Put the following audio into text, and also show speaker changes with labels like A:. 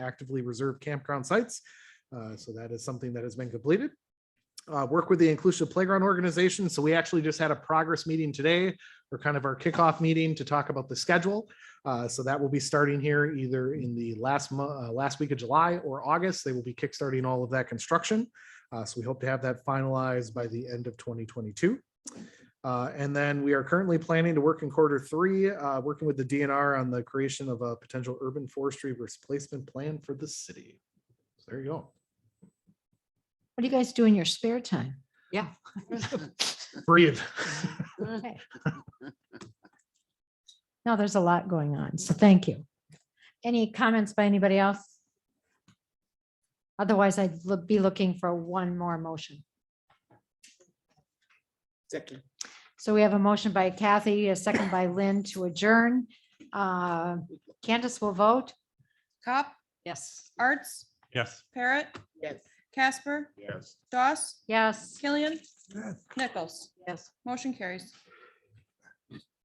A: actively reserved campground sites. Uh, So that is something that has been completed. Uh, Work with the Inclusive Playground Organization. So we actually just had a progress meeting today or kind of our kickoff meeting to talk about the schedule. Uh, So that will be starting here either in the last, mo- uh, last week of July or August. They will be kickstarting all of that construction. Uh, So we hope to have that finalized by the end of 2022. Uh, And then we are currently planning to work in quarter three, uh, working with the DNR on the creation of a potential urban forestry replacement plan for the city. So There you go.
B: What do you guys do in your spare time?
C: Yeah.
A: Breathe.
B: Okay. Now, there's a lot going on, so thank you. Any comments by anybody else? Otherwise, I'd lo- be looking for one more motion.
D: Second.
B: So we have a motion by Kathy, a second by Lynn to adjourn. Uh, Candace will vote.
E: Cop,
C: Yes.
E: Arts,
F: Yes.
E: Parrot,
D: Yes.
E: Casper,
F: Yes.
E: Doss,
B: Yes.
E: Killian,
A: Yes.
E: Nichols.
C: Yes.
E: Motion carries.